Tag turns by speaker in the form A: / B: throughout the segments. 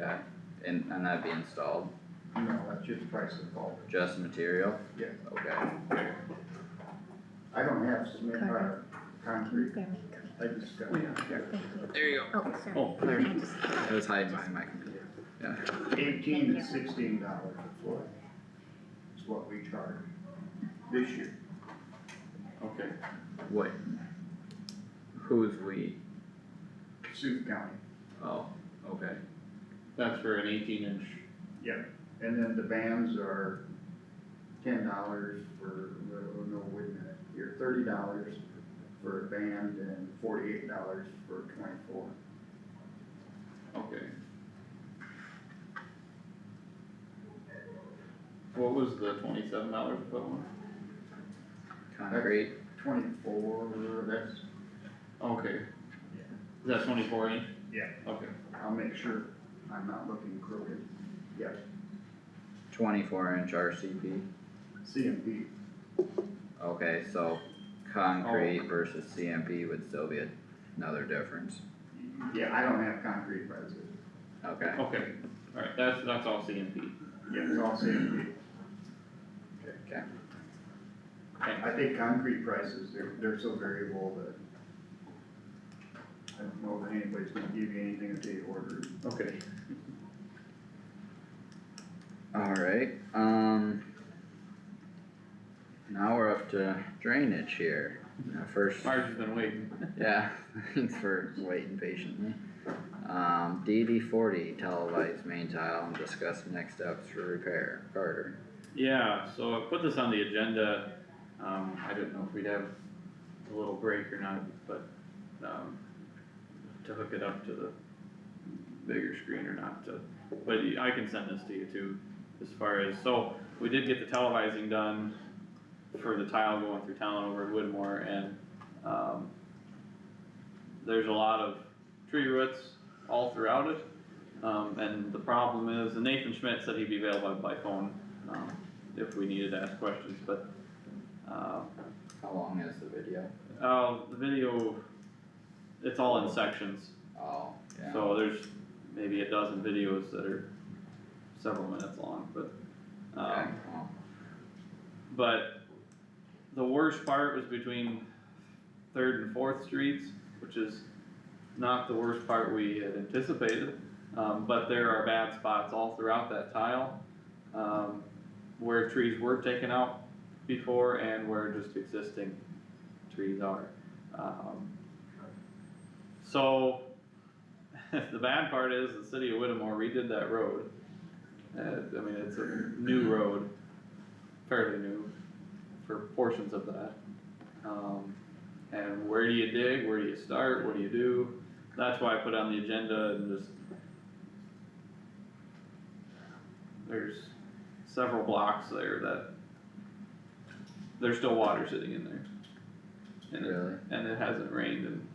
A: Okay, and, and that'd be installed,
B: No, that's just price of bulk,
A: just material?
B: yeah.
A: Okay,
B: I don't have cement, uh, concrete,
C: Grab me a clean,
B: I just got.
C: thank you.
A: there you
C: Oh, sorry.
A: go. Oh, there,
C: I just-
A: it was hiding behind my computer. Yeah,
B: Eighteen to sixteen dollars a foot is what we charge this year.
D: Okay,
A: what? Who's we?
B: Sioux County.
A: Oh, okay,
D: that's for an eighteen inch,
B: Yep. And then the bands are ten dollars for, oh, no, wait a minute, you're thirty dollars for a band and forty-eight dollars for twenty-four.
D: okay. What was the twenty-seven dollars foot one?
A: concrete,
B: Twenty-four, that's,
D: Okay. Is that twenty-four inch?
B: Yeah.
D: Okay,
B: I'll make sure I'm not looking crooked. Yes,
A: twenty-four inch RCP,
B: CMP,
A: okay, so concrete versus CMP would still be a- another difference,
B: yeah, I don't have concrete prices.
A: okay.
D: okay, alright, that's, that's all CMP.
B: Yeah, it's all CMP.
A: Okay,
D: Thanks.
B: I think concrete prices, they're, they're so variable that I don't know that anybody's gonna give you anything if they order.
D: Okay.
A: alright, um. Now we're up to drainage here, Now first.
D: Marge has been waiting.
A: Yeah, thanks for waiting patiently. Um, DD forty, televised main tile and discuss next steps for repair, Carter.
D: Yeah, so I put this on the agenda, um, I didn't know if we'd have a little break or not, but, um, to hook it up to the bigger screen or not to, but I can send this to you too, as far as, so, we did get the televising done for the tile going through town over at Woodmore and, um, there's a lot of tree roots all throughout it, um, and the problem is, and Nathan Schmidt said he'd be available by phone um, if we needed to ask questions, but, uh,
A: How long is the video?
D: oh, the video, it's all in sections,
A: Oh, yeah.
D: so there's maybe a dozen videos that are several minutes long, but,
A: Okay,
D: um,
A: well,
D: but the worst part was between Third and Fourth Streets, which is not the worst part we had anticipated. Um, but there are bad spots all throughout that tile, um, where trees were taken out before and where just existing trees are. Um, so, the bad part is the city of Whittemore redid that road. Uh, I mean, it's a new road, fairly new for portions of that. Um, and where do you dig, where do you start, what do you do? That's why I put on the agenda and just. There's several blocks there that. There's still water sitting in there. And it,
A: really,
D: and it hasn't rained in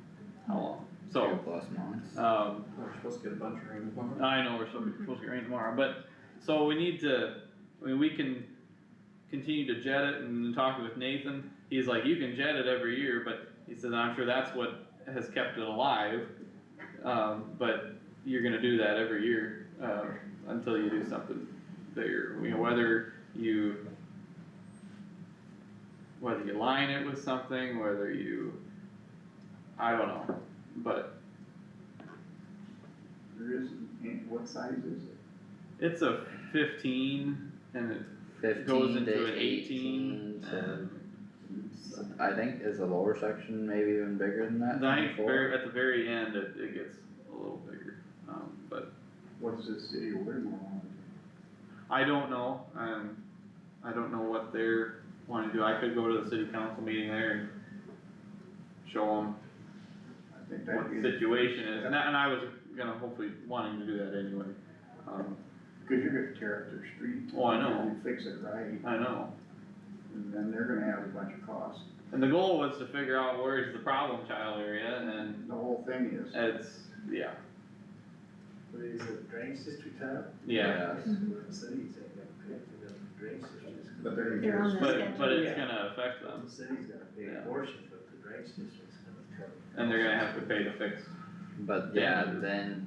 D: how long?
A: two
D: So,
A: plus months,
D: um,
E: We're supposed to get a bunch of rain tomorrow.
D: I know we're supposed to- supposed to get rain tomorrow, but, so we need to, I mean, we can continue to jet it and talk with Nathan. He's like, you can jet it every year, but he said, I'm sure that's what has kept it alive. Um, but you're gonna do that every year, uh, until you do something bigger, you know, whether you whether you line it with something, whether you, I don't know, but
B: There isn't, and what size is it?
D: It's a fifteen and it, goes
A: fifteen
D: into an
A: to
D: 18,
A: eighteen to, I think is the lower section maybe even bigger than that,
D: and I think
A: twenty-four?
D: very, at the very end, it, it gets a little bigger, um, but
B: What's the city of Whittemore on?
D: I don't know, um, I don't know what they're wanting to do, I could go to the city council meeting there and show them
B: I think
D: what
B: that'd
D: the
B: be,
D: situation is, and I, and I was gonna hopefully wanting to do that anyway, um,
B: cause you're gonna tear up their street.
D: Oh, I know.
B: and Fix it right,
D: I know.
B: and then they're gonna have a bunch of costs.
D: And the goal was to figure out where is the problem child area, and
B: The whole thing is,
D: it's, yeah,
E: What is it, drainage district tile?
D: yeah,
A: Yes.
E: The city's ain't gonna pay for the drainage district's gonna.
B: but they're.
C: They're on the
D: but, but it's
E: Yeah.
D: gonna affect them.
E: The city's gonna pay
D: Yeah.
E: a portion, but the drainage district's gonna cover.
D: And they're gonna have to pay to fix
A: But
D: Yeah.
A: yeah, then